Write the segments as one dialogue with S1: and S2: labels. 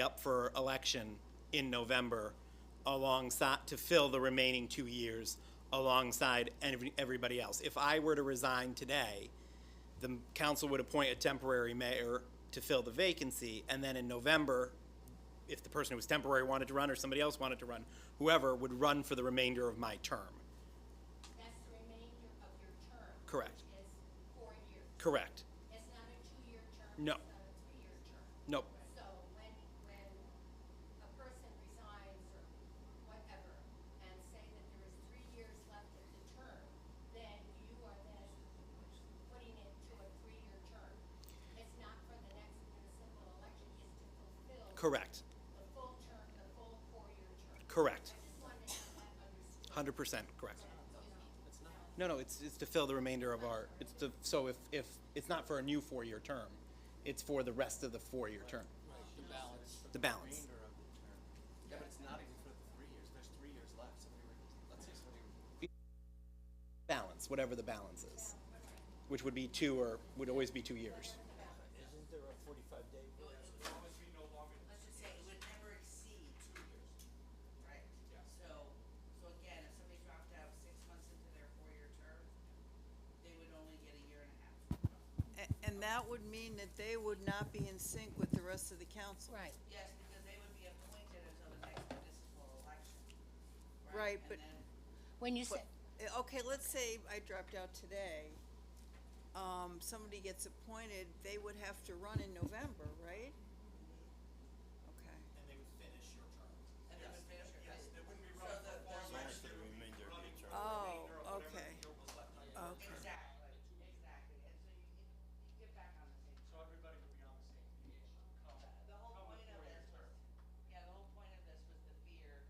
S1: up for election in November alongside, to fill the remaining two years alongside every- everybody else. If I were to resign today, the council would appoint a temporary mayor to fill the vacancy, and then in November, if the person who was temporary wanted to run or somebody else wanted to run, whoever would run for the remainder of my term.
S2: That's the remainder of your term.
S1: Correct.
S2: Which is four years.
S1: Correct.
S2: It's not a two-year term.
S1: No.
S2: It's not a three-year term.
S1: Nope.
S2: So when, when a person resigns or whatever, and say that there is three years left of the term, then you are then putting it to a three-year term. It's not for the next municipal election, it's to fulfill
S1: Correct.
S2: the full term, the full four-year term.
S1: Correct.
S2: I just wanted to have that understood.
S1: Hundred percent correct. No, no, it's, it's to fill the remainder of our, it's to, so if, if, it's not for a new four-year term, it's for the rest of the four-year term.
S3: The balance.
S1: The balance.
S3: Remainder of the term. Yeah, but it's not even for the three years, there's three years left, somebody were, let's say somebody
S1: Balance, whatever the balance is, which would be two or, would always be two years.
S3: Isn't there a forty-five day?
S4: let's just say, it would never exceed two years. Right? So, so again, if somebody dropped out six months into their four-year term, they would only get a year and a half.
S5: A- And that would mean that they would not be in sync with the rest of the council.
S6: Right.
S4: Yes, because they would be appointed until the next municipal election.
S5: Right,
S4: And
S5: but-
S4: then,
S6: When you say,
S5: Uh, Okay, let's say I dropped out today, um, somebody gets appointed, they would have to run in November, right? Okay.
S3: And they would finish your term.
S4: and they would finish your. Yes, they wouldn't be
S3: running
S4: So the,
S3: Yes, the remainder of the term.
S5: Oh, okay,
S4: the,
S5: okay.
S4: exactly, exactly, and so you get, you get back on the same.
S7: So everybody would be on the same page. come-
S4: The whole
S7: come
S4: point of this
S7: four-year
S4: was,
S7: term.
S4: yeah, the whole point of this was the fear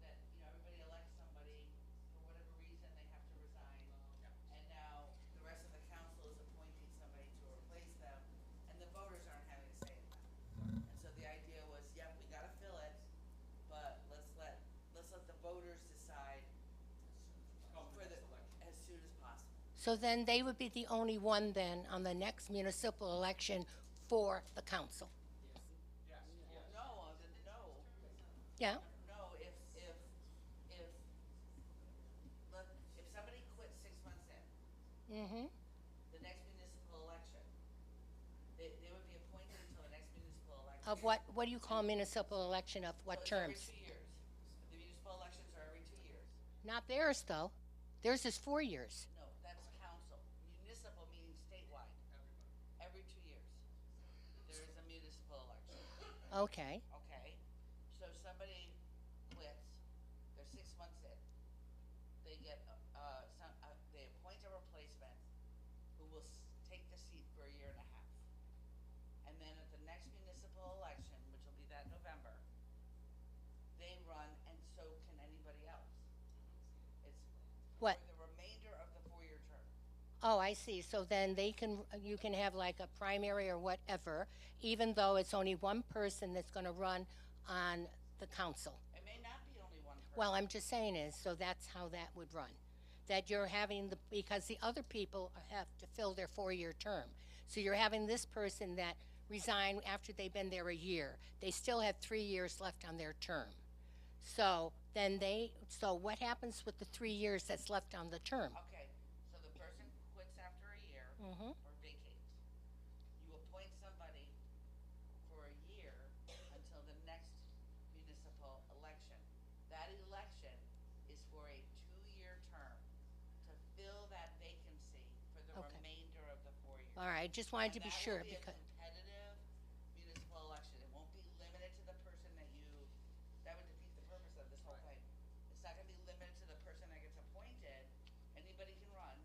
S4: that, you know, everybody elects somebody, for whatever reason, they have to resign. And now the rest of the council is appointing somebody to replace them, and the voters aren't having a say in that. And so the idea was, yeah, we gotta fill it, but let's let, let's let the voters decide for the, as soon as possible.
S6: so then they would be the only one then on the next municipal election for the council.
S4: No, then no,
S6: Yeah?
S4: No, if, if, if, look, if somebody quit six months in,
S6: Mm-hmm.
S4: the next municipal election, they, they would be appointed until the next municipal election.
S6: Of what, what do you call municipal election of
S4: So
S6: what
S4: it's every
S6: terms?
S4: two years. The municipal elections are every two years.
S6: Not theirs, though. Theirs is four years.
S4: No, that's council. Municipal meaning statewide. Every two years. There is a municipal election.
S6: Okay,
S4: Okay, so somebody quits, they're six months in. They get, uh, uh, some, uh, they appoint a replacement who will s- take the seat for a year and a half. And then at the next municipal election, which will be that November, they run and so can anybody else. It's
S6: What?
S4: For the remainder of the four-year term.
S6: oh, I see. So then they can, you can have like a primary or whatever, even though it's only one person that's gonna run on the council.
S4: It may not be only one person.
S6: Well, I'm just saying is, so that's how that would run. That you're having the, because the other people have to fill their four-year term. So you're having this person that resign after they've been there a year. They still have three years left on their term. So then they, so what happens with the three years that's left on the term?
S4: Okay, so the person quits after a year
S6: Mhm.
S4: or vacates. You appoint somebody for a year until the next municipal election. That election is for a two-year term to fill that vacancy for the
S6: Okay.
S4: remainder of the four years.
S6: All right, just wanted to be sure because,
S4: And that will be a competitive municipal election. It won't be limited to the person that you, that would defeat the purpose of this whole thing. It's not gonna be limited to the person that gets appointed. Anybody can run,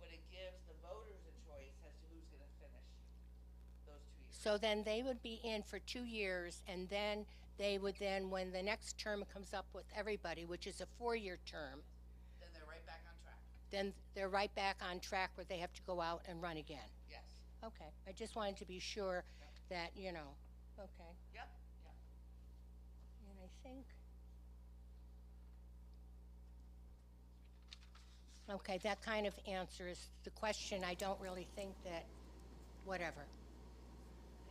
S4: but it gives the voters a choice as to who's gonna finish those two years.
S6: so then they would be in for two years and then they would then, when the next term comes up with everybody, which is a four-year term,
S4: Then they're right back on track.
S6: then they're right back on track where they have to go out and run again.
S4: Yes.
S6: Okay, I just wanted to be sure that, you know, okay.
S4: Yep, yep.
S6: And I think. Okay, that kind of answers the question. I don't really think that, whatever.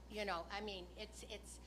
S6: You know, I mean, it's, it's,